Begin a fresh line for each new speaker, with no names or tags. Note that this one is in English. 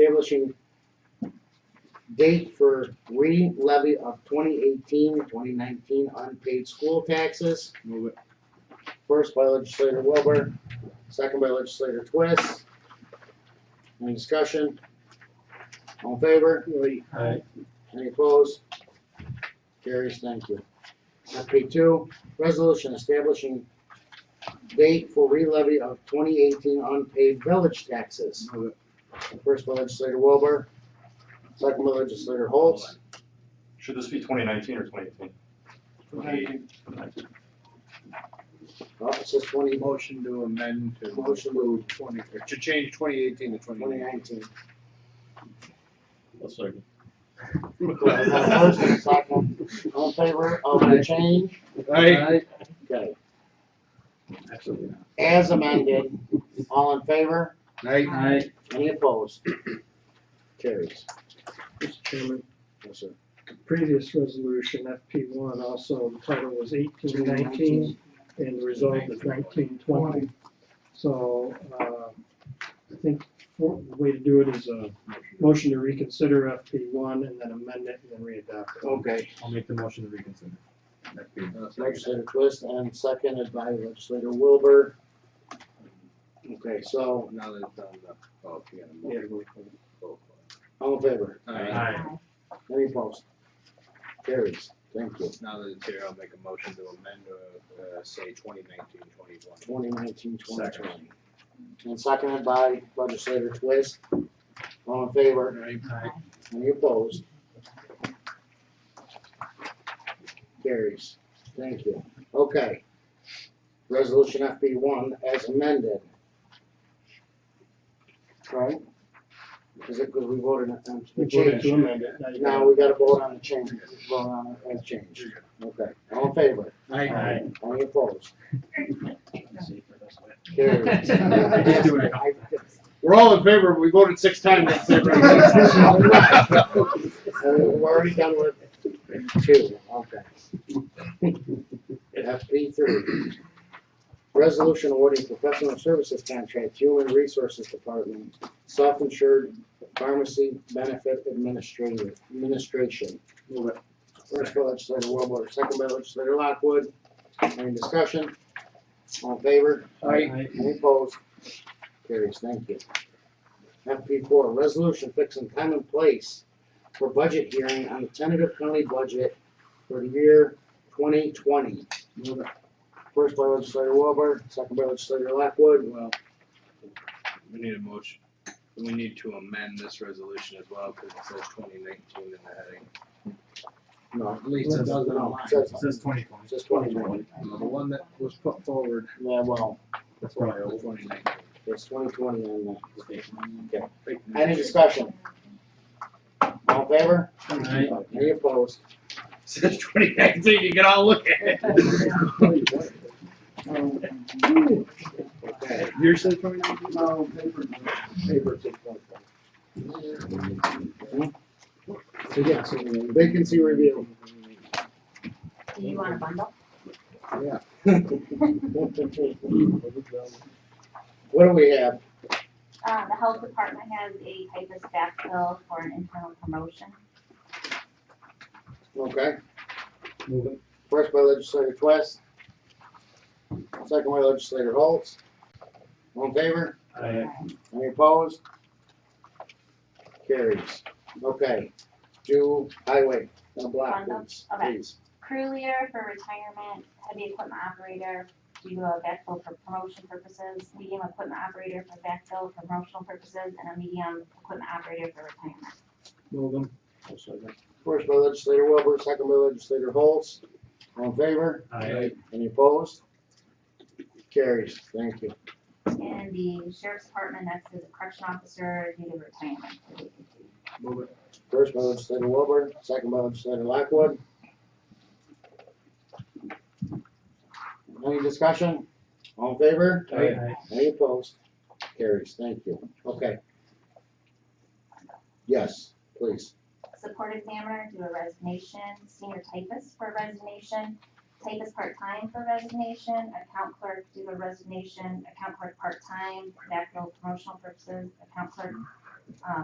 establishing date for re-levy of 2018, 2019 unpaid school taxes.
Move it.
First by legislator Wilbur, second by legislator Twist. Any discussion? All in favor?
Aye.
Any opposed? Carries, thank you. FP two, resolution establishing date for re-levy of twenty eighteen unpaid village taxes.
Move it.
First by legislator Wilbur, second by legislator Holtz.
Should this be twenty nineteen or twenty eighteen?
Oh, it says twenty,
Motion to amend to.
Motion
to. Twenty, to change twenty eighteen to twenty
twenty
nineteen.
nineteen. First
Aye.
and second, all in favor of the change? Okay.
Absolutely not.
As amended, all in favor?
Aye.
Any opposed? Carries.
Mr. Chairman,
Yes, sir.
the previous resolution, FP one, also the title was eighteen nineteen and the result was nineteen twenty. So, uh, I think for, the way to do it is a motion to reconsider FP one and then amend it and then re-adopt it.
Okay.
I'll make the motion to reconsider.
Legislator Twist and seconded by legislator Wilbur. Okay, so,
Now that it's on the, oh, if you got a
Yeah,
motion.
we'll-
Roll
all in favor?
call.
Any opposed? Carries, thank you.
Now that it's here, I'll make a motion to amend, uh, uh, say twenty nineteen, twenty-one.
Twenty nineteen, twenty twenty. And seconded by legislator Twist. All in favor?
Aye.
Any opposed? Carries, thank you. Okay. Resolution FB one as amended. Right? Is it because we voted on
We
the
voted
change?
to amend it. you
Now
gotta-
we gotta vote on the change, vote on it as change. Okay, all in favor?
Aye.
Any opposed? Carries.
Just
do it.
I-
We're all in favor, we voted six times, that's
it. Uh, We're already done with two, okay. FP three. Resolution awarding professional services contract, Human Resources Department, self-insured pharmacy benefit administrator, administration.
Move it.
First by legislator Wilbur, second by legislator Lockwood. Any discussion? All in favor? Any opposed? Carries, thank you. FP four, resolution fixing time and place for budget hearing on the tentative county budget for the year twenty twenty. First by legislator Wilbur, second by legislator Lockwood.
Well, we need a motion, we need to amend this resolution as well, because it says twenty nineteen in the heading.
No,
At least it doesn't
no,
align.
it says,
Says twenty
it
twenty.
says twenty twenty.
The one that was put forward,
Yeah, well,
That's probably old.
twenty
it's twenty twenty on
nineteen.
that. Any discussion? All in favor? Any opposed?
Says twenty nineteen, you can all look at it.
Okay.
You're saying twenty nineteen?
So, yeah, so- uh,
Vacancy review.
Do you want a bundle?
What do we have?
Uh, the health department has a typist backfill for an internal promotion.
Okay,
Move it.
first by legislator Twist. Second by legislator Holtz. All in favor?
Oh,
Aye.
Um,
Any opposed? Carries. Okay, do highway, no block, please.
Okay.
please.
Crew leader for retirement, heavy equipment operator due to a backfill for promotion purposes, medium equipment operator for backfill for promotional purposes, and a medium equipment operator for retirement.
Move them.
First by legislator Wilbur, second by legislator Holtz. All in favor?
Aye.
Any opposed? Carries, thank you.
And the sheriff's department, that's the correction officer due to retirement.
Move it.
First by legislator Wilbur, second by legislator Lockwood. Any discussion? All in favor?
Aye.
Any opposed? Carries, thank you. Okay. Yes, please.
Support examiner due to resignation, senior typist for resignation, typist part-time for resignation, account clerk due to resignation, account clerk part-time, backfill promotional purposes, account clerk